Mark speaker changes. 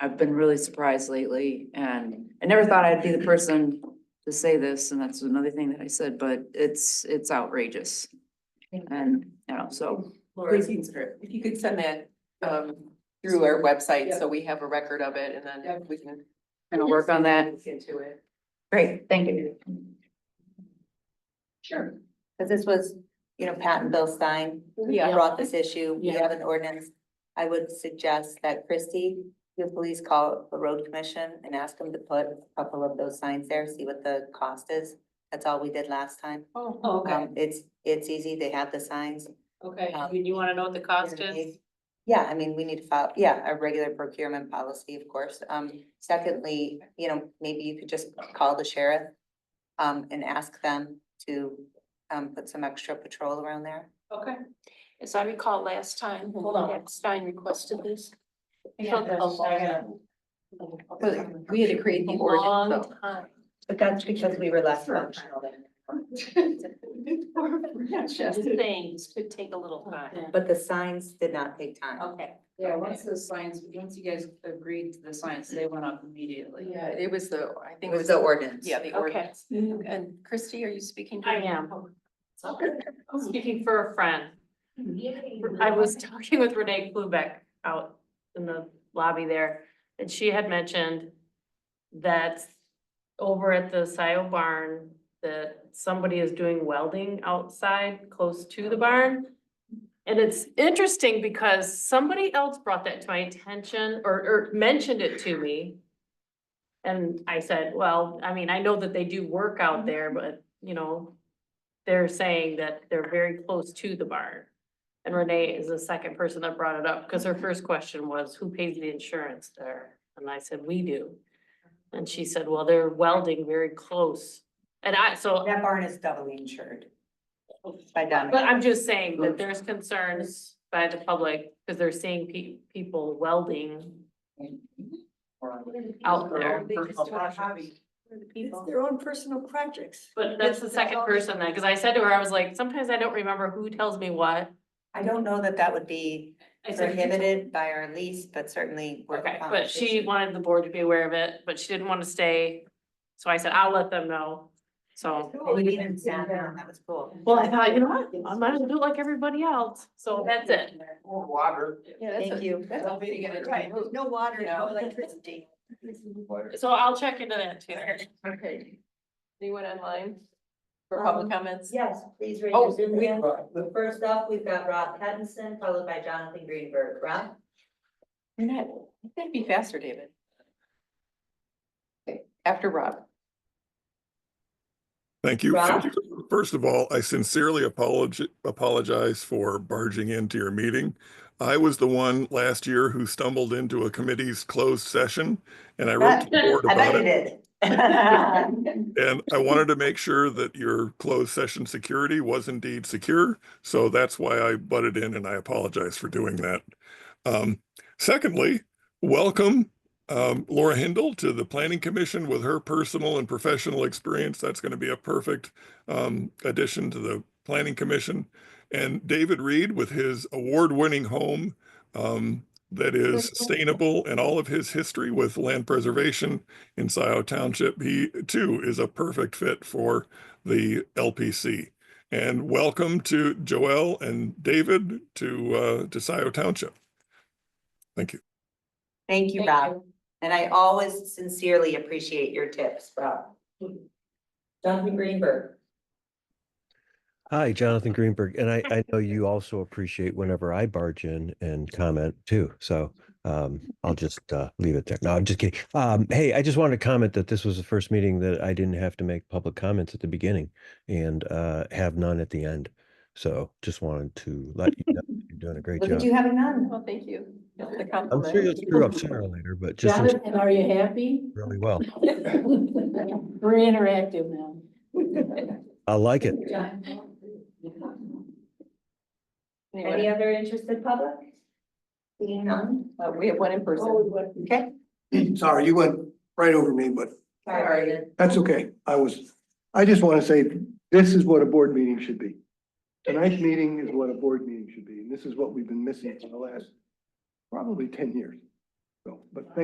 Speaker 1: I've been really surprised lately and I never thought I'd be the person to say this and that's another thing that I said, but it's, it's outrageous. And, you know, so,
Speaker 2: Laura,
Speaker 3: Please
Speaker 2: if
Speaker 3: consider it.
Speaker 2: you could send that um through our website, so we have a record of it and
Speaker 3: Yeah.
Speaker 2: then we can.
Speaker 1: I'm gonna work on that.
Speaker 2: Look into it.
Speaker 1: Great, thank you.
Speaker 3: Sure.
Speaker 4: Cause this was, you know, Pat and Bill Stein
Speaker 2: Yeah.
Speaker 4: brought this issue. We
Speaker 3: Yeah.
Speaker 4: have an ordinance. I would suggest that Christie, you please call the road commission and ask them to put a couple of those signs there, see what the cost is. That's all we did last time.
Speaker 2: Oh,
Speaker 3: Oh, okay,
Speaker 4: Um, it's, it's easy. They have the signs.
Speaker 3: okay.
Speaker 4: um,
Speaker 3: You, you wanna know what the cost is?
Speaker 4: Yeah, I mean, we need to file, yeah, a regular procurement policy, of course. Um, secondly, you know, maybe you could just call the sheriff. Um, and ask them to, um, put some extra patrol around there.
Speaker 3: Okay.
Speaker 5: As I recall last time,
Speaker 3: Hold on.
Speaker 5: that Stein requested this.
Speaker 3: I got
Speaker 5: Took a
Speaker 3: this, I got
Speaker 5: long-
Speaker 3: it.
Speaker 2: We had to create
Speaker 5: a long time.
Speaker 4: But that's because we were less functional
Speaker 5: Just saying, this could take a little
Speaker 3: Oh,
Speaker 5: time.
Speaker 4: But the signs did not take time.
Speaker 5: Okay.
Speaker 1: Yeah, once the signs, once you guys agreed to the signs, they went up immediately.
Speaker 2: Yeah, it was the, I
Speaker 4: It
Speaker 2: think.
Speaker 4: was the ordinance.
Speaker 2: Yeah, the
Speaker 5: Okay.
Speaker 2: ordinance. And Christy, are you speaking? to
Speaker 5: I
Speaker 2: me?
Speaker 5: am.
Speaker 3: Oh,
Speaker 5: Speaking for a friend. I was talking with Renee Klubeck out in the lobby there, and she had mentioned that over at the Scio barn, that somebody is doing welding outside, close to the barn. And it's interesting because somebody else brought that to my attention or, or mentioned it to me. And I said, well, I mean, I know that they do work out there, but, you know, they're saying that they're very close to the barn. And Renee is the second person that brought it up, because her first question was, who pays the insurance there? And I said, we do. And she said, well, they're welding very close. And I, so,
Speaker 4: That barn is doubly insured. By Dominic.
Speaker 5: but I'm just saying that there's concerns by the public, because they're seeing pe- people welding out there.
Speaker 6: It's their own personal projects.
Speaker 5: But that's the second person that, because I said to her, I was like, sometimes I don't remember who tells me what.
Speaker 4: I don't know that that would be
Speaker 5: I said,
Speaker 4: prohibited by our lease, but certainly. worth a
Speaker 5: Okay, but she
Speaker 4: conversation.
Speaker 5: wanted the board to be aware of it, but she didn't want to stay. So I said, I'll let them know. So,
Speaker 4: We didn't stand down, that was cool.
Speaker 5: well, I thought, you know what, I might as well do it like everybody else. So that's it.
Speaker 7: Or water.
Speaker 2: Yeah, that's
Speaker 4: Thank
Speaker 2: a-
Speaker 4: you.
Speaker 2: That's a way to get it right.
Speaker 6: No water,
Speaker 2: no
Speaker 6: no electricity.
Speaker 5: So I'll check into that too.
Speaker 2: Okay. Anyone online for
Speaker 3: Um,
Speaker 2: public comments?
Speaker 4: Yes, please raise
Speaker 2: Oh,
Speaker 4: your
Speaker 2: we-
Speaker 4: hand. First up, we've got Rob Pattinson, followed by Jonathan Greenberg. Rob?
Speaker 2: You're not, that'd be faster, David. Okay, After Rob.
Speaker 8: Thank you.
Speaker 4: Rob?
Speaker 8: First of all, I sincerely apologize, apologize for barging into your meeting. I was the one last year who stumbled into a committee's closed session and I wrote to the board
Speaker 4: I bet
Speaker 8: about
Speaker 4: you
Speaker 8: it.
Speaker 4: did.
Speaker 8: And I wanted to make sure that your closed session security was indeed secure. So that's why I butted in and I apologize for doing that. Um, secondly, welcome um, Laura Hindle to the Planning Commission with her personal and professional experience. That's going to be a perfect um, addition to the Planning Commission. And David Reed with his award-winning home um, that is sustainable and all of his history with land preservation in Scioto Township, he too is a perfect fit for the LPC. And welcome to Joel and David to uh, to Scioto Township. Thank you.
Speaker 4: Thank you, Rob. And I always sincerely appreciate your tips, Rob. Jonathan Greenberg.
Speaker 9: Hi, Jonathan Greenberg, and I, I know you also appreciate whenever I barge in and comment too. So um, I'll just uh, leave it there. No, I'm just kidding. Um, hey, I just wanted to comment that this was the first meeting that I didn't have to make public comments at the beginning and uh, have none at the end. So just wanted to let you know you're doing a great
Speaker 4: Look at
Speaker 9: job.
Speaker 4: you having none.
Speaker 2: Well, thank you. That's the
Speaker 9: I'm sure you'll
Speaker 2: compliment.
Speaker 9: screw up sooner or later, but just in-
Speaker 10: Jonathan, are you happy?
Speaker 9: really well.
Speaker 10: We're interactive now.
Speaker 9: I like it.
Speaker 2: Anyone-
Speaker 4: Any other interested public? Seeing none? Oh,
Speaker 2: uh, We have one in person.
Speaker 4: Okay.
Speaker 7: Sorry, you went right over me, but
Speaker 4: Sorry.
Speaker 7: that's okay. I was, I just want to say, this is what a board meeting should be. Tonight's meeting is what a board meeting should be, and this is what we've been missing for the last probably ten years. So, but thank